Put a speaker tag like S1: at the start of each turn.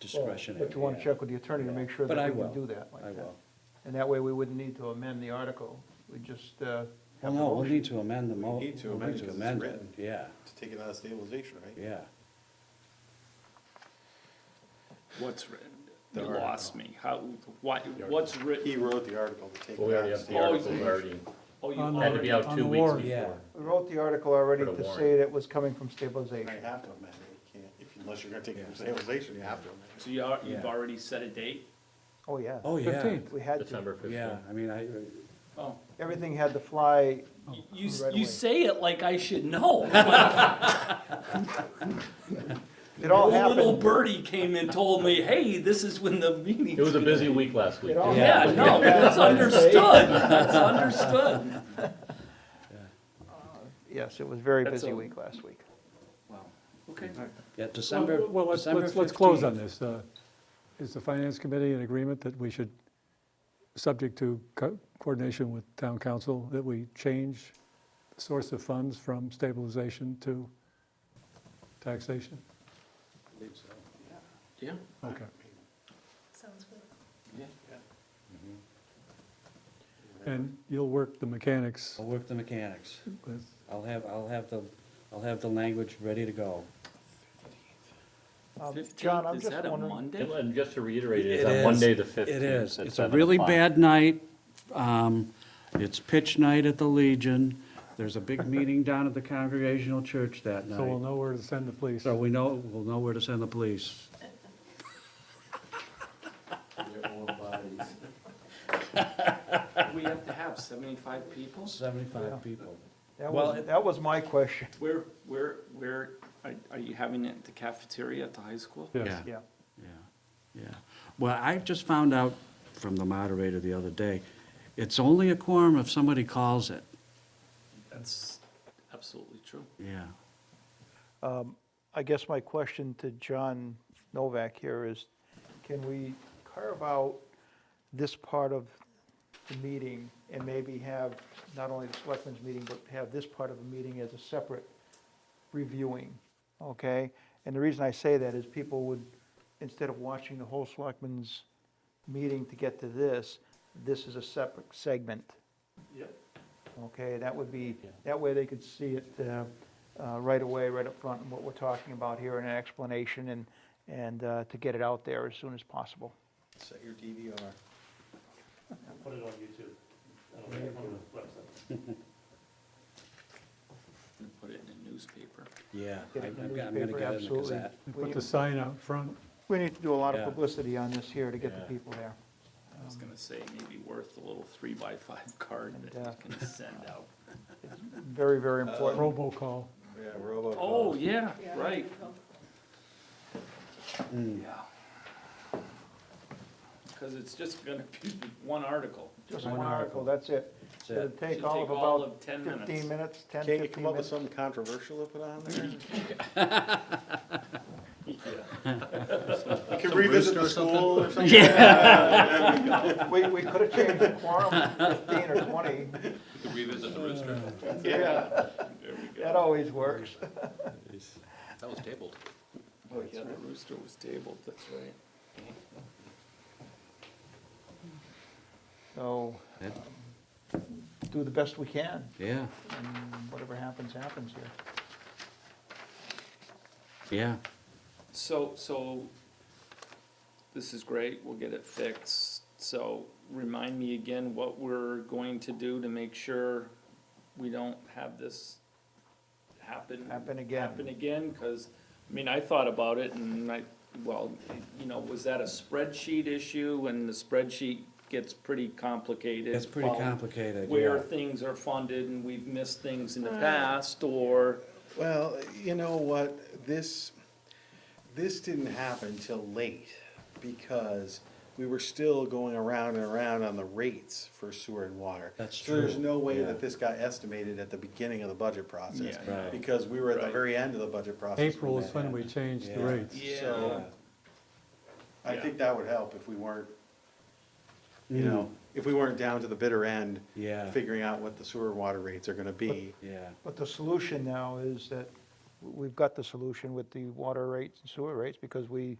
S1: discretionary.
S2: But you wanna
S1: yeah.
S2: check with the attorney to make sure
S1: But I
S2: that we
S1: will.
S2: can do that like
S1: I
S2: that.
S1: will.
S2: And that way, we wouldn't need to amend the article, we just, uh,
S1: Well,
S2: have a
S1: no, we'll
S2: motion.
S1: need to amend the mo-
S3: We need to
S1: we'll
S3: amend it 'cause it's
S1: amend it.
S3: written.
S1: Yeah,
S3: to take it out of stabilization, right?
S1: yeah.
S4: What's written?
S3: The
S4: You lost me. How, why, what's
S3: He
S4: written?
S3: wrote the article to take
S5: Well,
S3: it
S5: we
S3: out
S5: already
S3: of
S5: have the
S3: stabilization.
S5: article already,
S4: Oh, you
S6: On the-
S5: had to
S4: already,
S5: be out
S6: On
S5: two
S6: the
S5: weeks
S6: warrant.
S5: before.
S2: We wrote the article already
S5: Put a
S2: to
S5: warrant.
S2: say that was coming from
S3: You
S2: stabilization.
S3: have to amend it, you can't, if, unless you're gonna take it from stabilization, you have to amend it.
S4: so you are, you've
S1: Yeah.
S4: already set a date?
S2: Oh, yeah.
S1: Oh, yeah,
S6: 15th.
S2: We had to,
S5: December
S1: yeah,
S5: fifteenth.
S1: I mean, I,
S4: Oh,
S2: everything had to fly,
S4: you, s-
S2: Oh, Right away.
S4: you say it like I should know.
S2: it all
S4: A Little
S2: happened.
S4: birdie came and told me, hey, this is when the meeting.
S5: It was a busy week last week.
S2: It all
S4: Yeah,
S2: happened.
S4: no, that's understood, that's understood.
S2: Yes, it was a very
S4: That's
S2: busy
S4: a-
S2: week last week.
S4: Wow, okay.
S1: yeah, December,
S6: Well, Well, let's,
S1: December
S6: let's, let's close on
S1: 15th.
S6: this. Uh, Is the finance committee in agreement that we should, subject to co- coordination with town council, that we change the source of funds from stabilization to taxation?
S4: Yeah.
S6: Okay.
S7: Sounds good.
S6: Mm-hmm. And you'll work the mechanics
S1: I'll work the mechanics.
S6: with,
S1: I'll have, I'll have the, I'll have the language ready to go.
S2: Um, John,
S4: Fifteenth,
S2: I'm
S4: is
S2: just
S4: that a
S2: wondering,
S4: Monday?
S5: And just to reiterate, it's
S1: It
S5: on
S1: is.
S5: Monday, the
S1: It
S5: fifteenth.
S1: is. It's a really bad night. Um, It's pitch night at the Legion. There's a big meeting down at the Congregational Church that
S6: so we'll
S1: night.
S6: know where to send the police.
S1: So we know, we'll know where to send the police.
S4: We have to have seventy-five people?
S1: Seventy-five people.
S2: that
S4: Well,
S2: was,
S4: it-
S2: that was my question,
S4: Where, where, where, are, are you having it at the cafeteria at the high school?
S6: Yes.
S2: yeah.
S1: Yeah, yeah. Well, I just found out from the moderator the other day, it's only a quorum if somebody calls it.
S4: That's absolutely true.
S1: Yeah.
S2: I guess my question to John Novak here is, can we carve out this part of the meeting and maybe have not only the selectmen's meeting, but have this part of the meeting as a separate reviewing, okay? And the reason I say that is people would, instead of watching the whole selectmen's meeting to get to this, this is a separate segment. Yep. Okay, that would be, that way they could see it uh, uh, right away, right up front, and what we're talking about here, and an explanation, and, and uh, to get it out there as soon as possible.
S3: Set your DVR.
S8: Put it on YouTube. That'll make it on the website.
S4: I'm gonna put it in the newspaper.
S1: Yeah.
S2: Get
S1: I-
S2: it
S1: I'm gonna
S2: in the
S1: I'm gonna
S2: newspaper,
S1: get it in the
S2: absolutely.
S1: Gazette.
S6: And Put the sign out front.
S2: We need to do a lot of
S1: Yeah.
S2: publicity on this here to get
S1: Yeah.
S2: the people there.
S4: I was gonna say, maybe worth a little three-by-five card that
S2: And, uh,
S4: you can send out.
S2: Very, very important.
S6: Robocall.
S3: Yeah, robocall.
S4: Oh, yeah,
S7: Yeah,
S4: right,
S7: cool.
S2: Hmm.
S4: yeah. Cause it's just gonna be one article.
S2: Just one article, that's it.
S1: That's
S2: It'll
S1: it.
S2: take
S4: Should
S2: all of
S4: take all
S2: about
S4: of 10
S2: fifteen
S4: minutes.
S2: minutes, 10,
S3: Can't you
S2: 15
S3: come up with
S2: minutes.
S3: something controversial to put on there? You can revisit the school or something?
S2: We, we could have changed the quorum to fifteen or twenty,
S4: Revisit the rooster.
S3: Yeah.
S2: that always works.
S9: That was tabled.
S3: Oh,
S4: That's
S3: yeah.
S4: right, rooster was tabled, that's right.
S2: So,
S1: Yep.
S2: um, do the best we can,
S1: Yeah,
S2: and whatever happens, happens here.
S1: yeah.
S4: So, so, this is great, we'll get it fixed. So, remind me again what we're going to do to make sure we don't have this happen.
S2: Happen again.
S4: Happen again, because, I mean, I thought about it and I, well, you know, was that a spreadsheet issue? And the spreadsheet gets pretty complicated.
S1: It's pretty
S4: about
S1: complicated,
S4: Where
S1: yeah.
S4: things are funded and we've missed things in the past, or,
S3: Well, you know what, this, this didn't happen till late, because we were still going around and around on the rates for sewer and water.
S1: That's
S3: So there's
S1: true,
S3: no way
S1: yeah.
S3: that this got estimated at the beginning of the budget process,
S4: Yeah,
S1: Right.
S3: because we were at the
S4: Right.
S3: very end of the budget process. when
S6: April
S3: that
S6: is when we
S3: happened.
S6: change the
S1: Yeah.
S6: rates.
S4: yeah,
S3: So, I think that would help if we weren't, you
S1: Mm.
S3: know, if we weren't down to the bitter end.
S1: Yeah.
S3: Figuring out what the sewer and water rates are gonna be.
S1: Yeah,
S2: But the solution now is that we've got the solution with the water rates and sewer rates because we